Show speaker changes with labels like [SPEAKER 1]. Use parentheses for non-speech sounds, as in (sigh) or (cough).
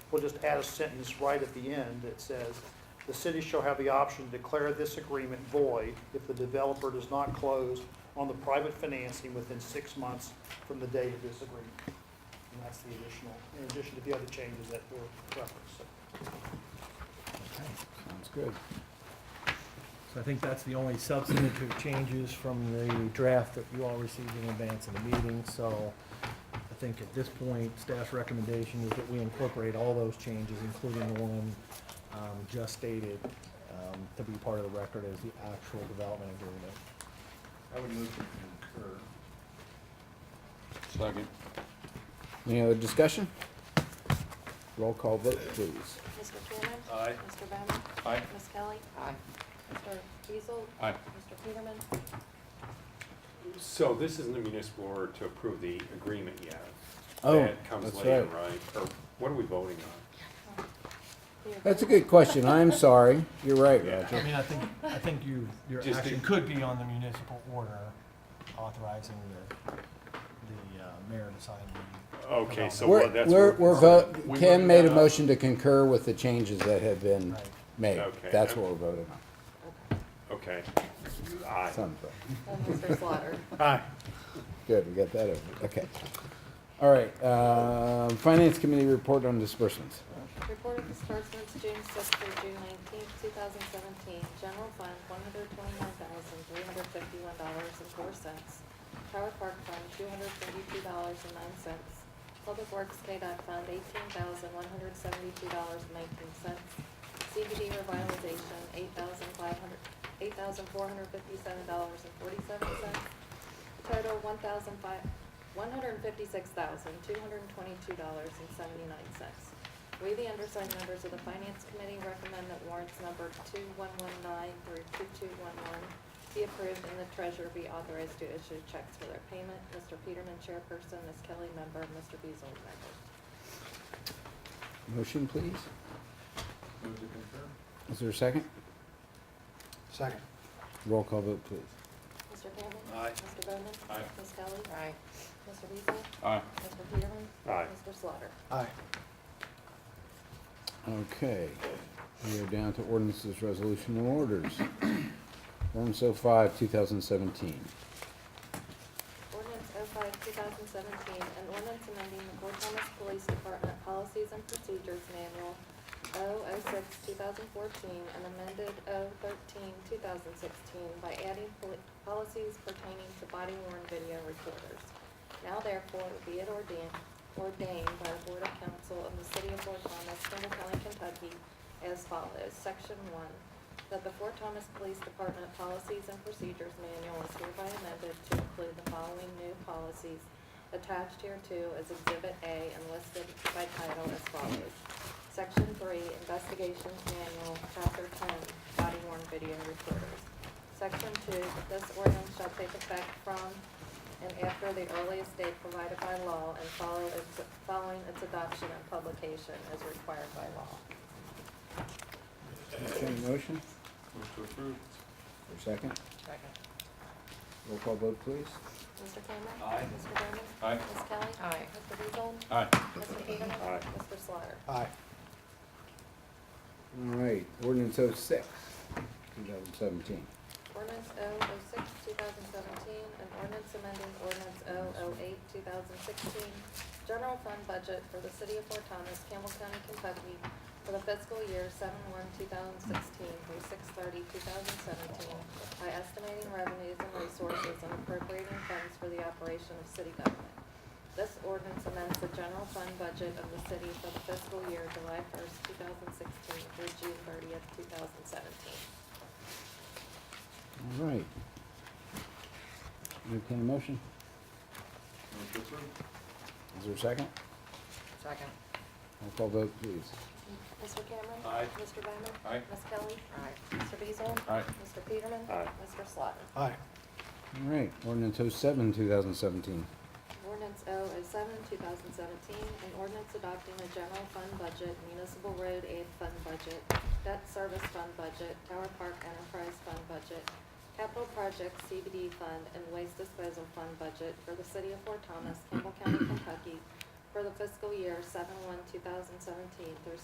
[SPEAKER 1] we'll just add a sentence right at the end that says, "The city shall have the option to declare this agreement void if the developer does not close on the private financing within six months from the date of this agreement." And that's the additional, in addition to the other changes that were referenced. So,
[SPEAKER 2] Okay, Sounds good. So I think that's the only substantive changes from the draft that you all received in advance of the meeting. So I think at this point, staff's recommendation is that we incorporate all those changes, including the one um, just stated, um, to be part of the record as the actual development agreement.
[SPEAKER 3] I would move to concur.
[SPEAKER 4] Second.
[SPEAKER 5] Any other discussion? Roll call vote, please.
[SPEAKER 6] Mr. Cannon?
[SPEAKER 3] Aye.
[SPEAKER 6] Mr. Bowman?
[SPEAKER 4] Aye.
[SPEAKER 6] Ms. Kelly? Aye. Mr. Beazle?
[SPEAKER 4] Aye.
[SPEAKER 6] Mr. Peterman?
[SPEAKER 4] (laughs)
[SPEAKER 7] So this isn't a municipal order to approve the agreement yet.
[SPEAKER 5] Oh,
[SPEAKER 7] That comes
[SPEAKER 5] that's
[SPEAKER 7] later,
[SPEAKER 5] right.
[SPEAKER 7] right? Or what are we voting on?
[SPEAKER 6] The
[SPEAKER 5] That's a
[SPEAKER 6] agreement-
[SPEAKER 5] good question. I'm sorry. You're right,
[SPEAKER 2] I
[SPEAKER 5] Roger.
[SPEAKER 2] mean, I think, I think you, your
[SPEAKER 7] Just
[SPEAKER 2] action
[SPEAKER 7] to-
[SPEAKER 2] could be on the municipal order authorizing the, the uh, mayor to sign the.
[SPEAKER 7] Okay, so
[SPEAKER 5] We're,
[SPEAKER 7] what- that's.
[SPEAKER 5] we're,
[SPEAKER 7] what-
[SPEAKER 5] we're vote,
[SPEAKER 7] we
[SPEAKER 5] Ken
[SPEAKER 7] voted
[SPEAKER 5] made a
[SPEAKER 7] that
[SPEAKER 5] motion to concur with the changes that have been
[SPEAKER 2] Right.
[SPEAKER 5] made.
[SPEAKER 7] Okay.
[SPEAKER 5] That's what we're voting on.
[SPEAKER 7] up. Okay. Aye.
[SPEAKER 5] Thumbs up.
[SPEAKER 6] And Mr. Slaughter?
[SPEAKER 5] Good, we got that over. Okay. All right, um, Finance Committee report on disbursements.
[SPEAKER 6] Report of disbursements, June sixth through June nineteenth, two thousand seventeen. General fund, one hundred twenty-nine thousand, three hundred fifty-one dollars and four cents. Tower Park Fund, two hundred thirty-two dollars and nine cents. Public Works KDOT Fund, eighteen thousand, one hundred seventy-two dollars and nineteen cents. CBD revitalization, eight thousand five hundred, eight thousand four hundred fifty-seven dollars and forty-seven cents. Total, one thousand five, one hundred fifty-six thousand, two hundred twenty-two dollars and seventy-nine cents. We, the undersigned members of the Finance Committee, recommend that warrants numbered 2119 through 2211 be approved and the treasurer be authorized to issue checks for their payment. Mr. Peterman, chairperson, Ms. Kelly, member, Mr. Beazle, member.
[SPEAKER 5] Motion, please.
[SPEAKER 3] Move to concur?
[SPEAKER 5] Is there a second?
[SPEAKER 3] Second.
[SPEAKER 5] Roll call vote, please.
[SPEAKER 6] Mr. Campbell?
[SPEAKER 3] Aye.
[SPEAKER 6] Mr. Bowman?
[SPEAKER 7] Aye.
[SPEAKER 6] Ms. Kelly? Aye. Mr. Beazle?
[SPEAKER 4] Aye.
[SPEAKER 6] Mr. Peterman?
[SPEAKER 7] Aye.
[SPEAKER 6] Mr. Slaughter?
[SPEAKER 3] Aye.
[SPEAKER 5] Okay, we are down to ordinances, resolution, and orders. Ordinance oh five, two thousand seventeen.
[SPEAKER 6] Ordinance 05-2017, an ordinance amending the Fort Thomas Police Department Policies and Procedures Manual 006-2014 and amended 013-2016 by adding poli- policies pertaining to body worn video recorders. Now therefore be it ordained, ordained by the Board of Council of the City of Fort Thomas, Campbell County, Kentucky as follows. Section one, that the Fort Thomas Police Department Policies and Procedures Manual is hereby amended to include the following new policies attached hereto as Exhibit A and listed by title as follows. Section three, Investigations Manual, Chapter ten, Body worn video recorders. Section two, this ordinance shall take effect from and after the earliest date provided by law and follow its, following its adoption and publication as required by law.
[SPEAKER 5] Entertained motion,
[SPEAKER 3] Move to approve?
[SPEAKER 5] or second? Second. Roll call vote, please.
[SPEAKER 6] Mr. Cameron.
[SPEAKER 3] Aye.
[SPEAKER 6] Mr. Bowman.
[SPEAKER 4] Aye.
[SPEAKER 6] Ms. Kelly. Aye. Mr. Beazle.
[SPEAKER 4] Aye.
[SPEAKER 6] Mr. Peterman.
[SPEAKER 7] Aye.
[SPEAKER 6] Mr. Slaughter.
[SPEAKER 3] Aye.
[SPEAKER 5] All right, ordinance oh six, two thousand seventeen.
[SPEAKER 6] Ordinance 006 two thousand seventeen, and ordinance amending ordinance 008 two thousand sixteen, general fund budget for the city of Fort Thomas, Campbell County, Kentucky, for the fiscal year seven one two thousand sixteen through 630 2017 by estimating revenues and resources and appropriating funds for the operation of city government. This ordinance amends the general fund budget of the city for the fiscal year July first, two thousand sixteen through June thirtieth, two thousand seventeen.
[SPEAKER 5] All right. Entertained motion,
[SPEAKER 3] Move to approve?
[SPEAKER 5] is there a second?
[SPEAKER 8] Second.
[SPEAKER 5] Roll call vote, please.
[SPEAKER 6] Mr. Cameron.
[SPEAKER 3] Aye.
[SPEAKER 6] Mr. Bowman.
[SPEAKER 4] Aye.
[SPEAKER 6] Ms. Kelly. Aye. Mr. Beazle.
[SPEAKER 4] Aye.
[SPEAKER 6] Mr. Peterman.
[SPEAKER 7] Aye.
[SPEAKER 6] Mr. Slaughter.
[SPEAKER 3] Aye.
[SPEAKER 5] All right, ordinance oh seven, two thousand seventeen.
[SPEAKER 6] Ordinance 007, 2017, an ordinance adopting the general fund budget, municipal road aid fund budget, debt service fund budget, Tower Park enterprise fund budget, capital projects CBD fund, and waste disposal fund budget for the city of Fort Thomas, Campbell County, Kentucky, for the fiscal year seven one, two thousand seventeen through